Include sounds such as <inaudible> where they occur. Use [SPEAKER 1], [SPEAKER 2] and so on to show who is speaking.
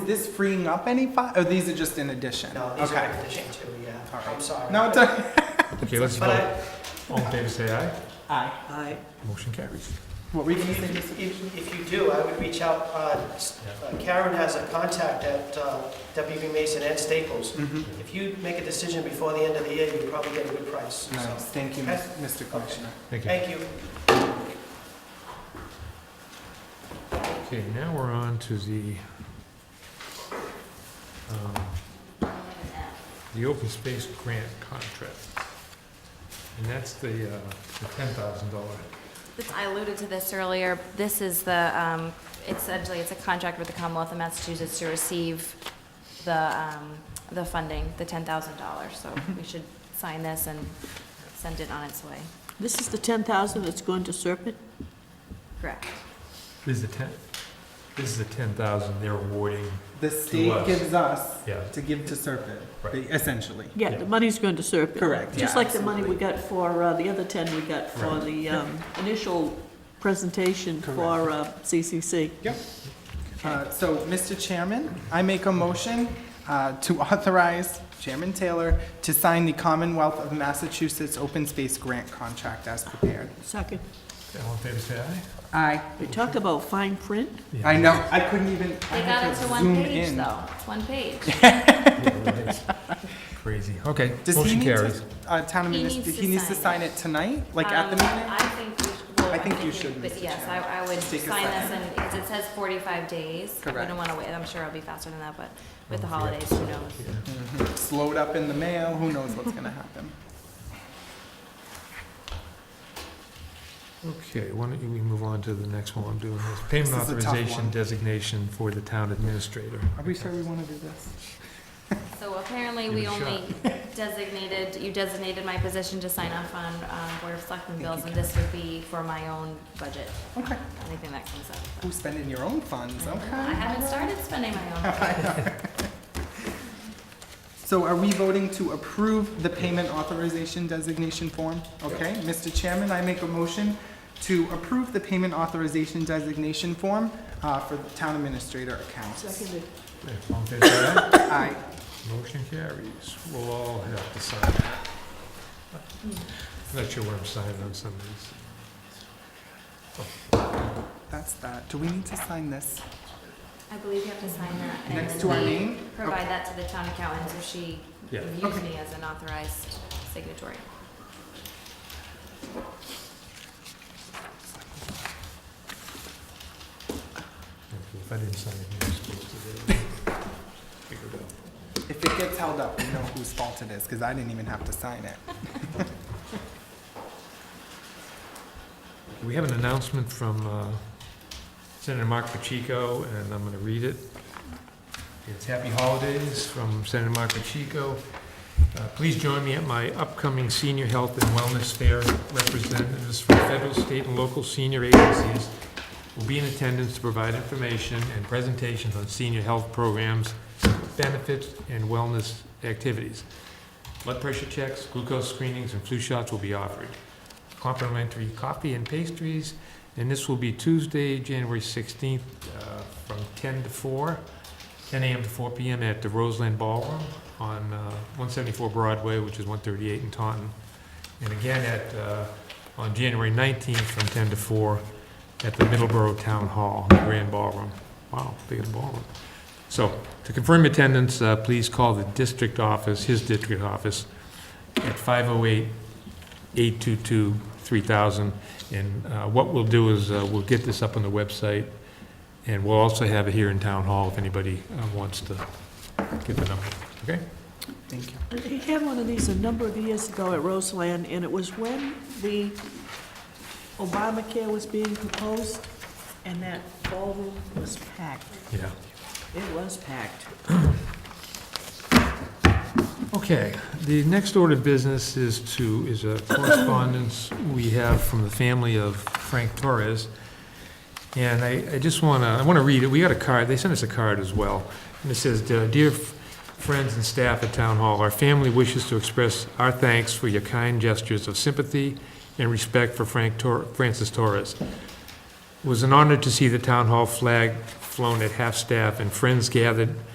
[SPEAKER 1] Is this freeing up any fi, or these are just in addition?
[SPEAKER 2] No, these are
[SPEAKER 1] Okay.
[SPEAKER 2] in addition to,
[SPEAKER 1] All
[SPEAKER 2] yeah,
[SPEAKER 1] right.
[SPEAKER 2] I'm sorry.
[SPEAKER 1] No, it's, okay.
[SPEAKER 3] Okay, let's
[SPEAKER 2] But
[SPEAKER 3] vote.
[SPEAKER 2] I,
[SPEAKER 3] All in favor, say aye.
[SPEAKER 1] aye.
[SPEAKER 2] I,
[SPEAKER 3] Motion carries.
[SPEAKER 1] What were you gonna say?
[SPEAKER 2] if, if- if you do, I would reach out, uh, s- uh, Karen has a contact at uh, WB Mason and Staples.
[SPEAKER 1] Mhm.
[SPEAKER 2] If you make a decision before the end of the year, you probably get a good price, so,
[SPEAKER 1] Nice, thank you, Mis- Mr. Commissioner.
[SPEAKER 3] Thank you.
[SPEAKER 2] thank you.
[SPEAKER 3] Okay, now we're on to the, um, the open space grant contract. And that's the, uh, the ten thousand dollar.
[SPEAKER 4] This- I alluded to this earlier. This is the, um, essentially, it's a contract with the Commonwealth of Massachusetts to receive the, um, the funding, the $10,000. So
[SPEAKER 1] Mm-hmm.
[SPEAKER 4] we should sign this and send it on its way.
[SPEAKER 5] This is the 10,000 that's going to Serpent?
[SPEAKER 4] Correct.
[SPEAKER 3] This is the ten, this is the ten thousand they're awarding.
[SPEAKER 1] The state
[SPEAKER 3] us.
[SPEAKER 1] gives us
[SPEAKER 3] Yeah.
[SPEAKER 1] to give to Serpent,
[SPEAKER 3] Right.
[SPEAKER 1] essentially.
[SPEAKER 5] Yeah,
[SPEAKER 3] Yeah.
[SPEAKER 5] the money's going to Serpent.
[SPEAKER 1] Correct,
[SPEAKER 5] Just
[SPEAKER 1] yeah,
[SPEAKER 5] like the money we got for, uh, the other 10 we got for
[SPEAKER 3] Right.
[SPEAKER 5] the um, initial presentation for uh, CCC.
[SPEAKER 1] Yep. Uh, So, Mr. Chairman, I make a motion uh, to authorize Chairman Taylor to sign the Commonwealth of Massachusetts Open Space Grant Contract as prepared.
[SPEAKER 5] Second,
[SPEAKER 3] All in favor, say aye.
[SPEAKER 1] Aye.
[SPEAKER 5] we talk about fine print.
[SPEAKER 3] Yeah.
[SPEAKER 1] I know, I couldn't even, I
[SPEAKER 4] They got
[SPEAKER 1] had
[SPEAKER 4] it
[SPEAKER 1] to
[SPEAKER 4] to
[SPEAKER 1] zoom
[SPEAKER 4] one page,
[SPEAKER 1] in.
[SPEAKER 4] though. It's one page.
[SPEAKER 1] <laughs>
[SPEAKER 3] Crazy. Okay,
[SPEAKER 1] Does he
[SPEAKER 3] motion
[SPEAKER 1] need
[SPEAKER 3] carries.
[SPEAKER 1] to, uh, town
[SPEAKER 4] He needs
[SPEAKER 1] administrator,
[SPEAKER 4] to
[SPEAKER 1] he needs to
[SPEAKER 4] sign
[SPEAKER 1] sign it tonight, like at the
[SPEAKER 4] Um,
[SPEAKER 1] meeting?
[SPEAKER 4] I think we should, well,
[SPEAKER 1] I
[SPEAKER 4] I
[SPEAKER 1] think you
[SPEAKER 4] we-
[SPEAKER 1] should,
[SPEAKER 4] but
[SPEAKER 1] Mr.
[SPEAKER 4] yes, I,
[SPEAKER 1] Chairman.
[SPEAKER 4] I would
[SPEAKER 1] Take a
[SPEAKER 4] sign this,
[SPEAKER 1] second.
[SPEAKER 4] and because it says 45 days. I
[SPEAKER 1] Correct.
[SPEAKER 4] wouldn't want to wait. I'm sure it'll be faster than that, but with the
[SPEAKER 3] Oh, yeah.
[SPEAKER 4] holidays, who knows?
[SPEAKER 3] Yeah.
[SPEAKER 1] It's loaded up in the mail, who knows what's gonna happen?
[SPEAKER 3] Okay, why don't you- we move on to the next one I'm doing this. Payment
[SPEAKER 1] This is a tough
[SPEAKER 3] authorization
[SPEAKER 1] one.
[SPEAKER 3] designation for the town administrator.
[SPEAKER 1] Are we sure we wanna do this?
[SPEAKER 4] So apparently,
[SPEAKER 3] Give
[SPEAKER 4] we
[SPEAKER 3] it a
[SPEAKER 4] only
[SPEAKER 1] <laughs>
[SPEAKER 4] designated, you designated my position to sign off on um, Board of Selectmen bills, and this would be for my own budget,
[SPEAKER 1] Okay,
[SPEAKER 4] anything that comes up.
[SPEAKER 1] who's spending your own funds, okay?
[SPEAKER 4] I haven't started spending my own. budget.
[SPEAKER 1] <laughs> So are we voting to approve the payment authorization designation form? Okay, Mr. Chairman, I make a motion to approve the payment authorization designation form, uh, for the town administrator accounts.
[SPEAKER 5] Seconded.
[SPEAKER 3] Okay, all in favor, say
[SPEAKER 1] Aye.
[SPEAKER 3] aye. Motion carries. We'll all have to sign that. Not sure what I'm signing on some of these.
[SPEAKER 1] That's that. Do we need to sign this
[SPEAKER 4] I believe you have to sign that. and
[SPEAKER 1] next
[SPEAKER 4] then
[SPEAKER 1] to our
[SPEAKER 4] we
[SPEAKER 1] name?
[SPEAKER 4] Provide that to the town accountant, so she
[SPEAKER 3] Yeah.
[SPEAKER 4] views me as an authorized signatory.
[SPEAKER 3] If I didn't sign it, I'm supposed to do it. <laughs> Figure it out.
[SPEAKER 1] If it gets held up, we know whose fault it is, because I didn't even have to sign it.
[SPEAKER 3] We have an announcement from uh, Senator Mark Pacheco, and I'm going to read it. It's Happy Holidays from Senator Mark Pacheco. Uh, Please join me at my upcoming Senior Health and Wellness Fair. Representatives from federal, state, and local senior agencies will be in attendance to provide information and presentations on senior health programs, benefits, and wellness activities. Blood pressure checks, glucose screenings, and flu shots will be offered complimentary coffee and pastries. And this will be Tuesday, January 16th, uh, from 10 to 4, 10 a.m. to 4 p.m. at the Roseland Ballroom on uh, 174 Broadway, which is 138 in Taunton. And again at, uh, on January 19th, from 10 to 4, at the Middleborough Town Hall, the Grand Ballroom. Wow, big of a ballroom. So to confirm attendance, uh, please call the district office, his district office, at 508 822-3000. And uh, what we'll do is, uh, we'll get this up on the website, and we'll also have it here in Town Hall if anybody uh, wants to get the number, okay?
[SPEAKER 1] Thank you.
[SPEAKER 5] He had one of these a number of years ago at Roseland, and it was when the Obamacare was being proposed, and that ballroom was packed.
[SPEAKER 3] Yeah.
[SPEAKER 5] It was packed.
[SPEAKER 3] Okay, the next order of business is to, is a correspondence we have from the family of Frank Torres. And I, I just want to, I want to read it, we got a card, they sent us a card as well. And it says, "Dear- "Dear f- friends and staff at Town Hall, our family wishes to express our thanks for your kind gestures of sympathy and respect for Frank Tor, Francis Torres. It was an honor to see the Town Hall flag fl- flown at half-staff, and friends gathered